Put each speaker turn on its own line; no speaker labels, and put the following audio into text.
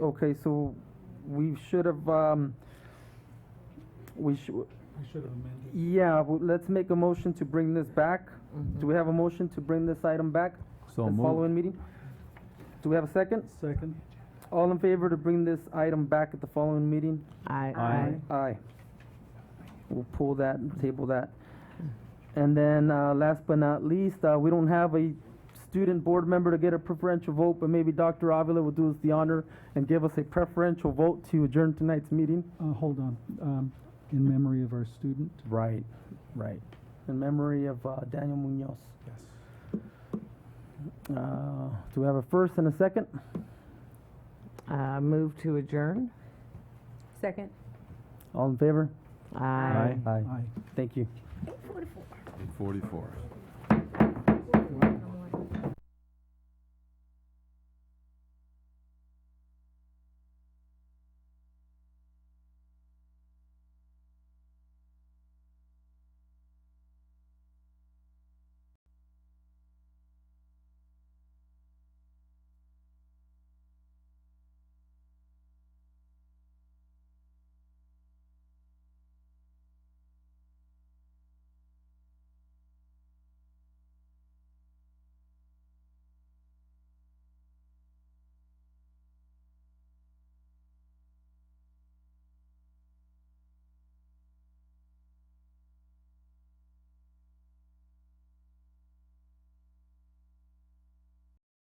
Okay, so we should have, um, we should,
I should have amended.
yeah, w- let's make a motion to bring this back. Do we have a motion to bring this item back?
So
The
moved.
following meeting? Do we have a second?
Second?
All in favor to bring this item back at the following meeting?
Aye.
Aye.
Aye. We'll pull that and table that. And then, uh, last but not least, uh, we don't have a student board member to get a preferential vote, but maybe Dr. Avila will do us the honor and give us a preferential vote to adjourn tonight's meeting
Uh, hold on, um, in memory of our student?
Right, right.
in memory of, uh, Daniel Munoz.
Yes.
Uh, do we have a first and a second?
Uh, Move to adjourn?
Second.
All in favor?
Aye.
Aye.
Aye.
Thank you.
Forty-four.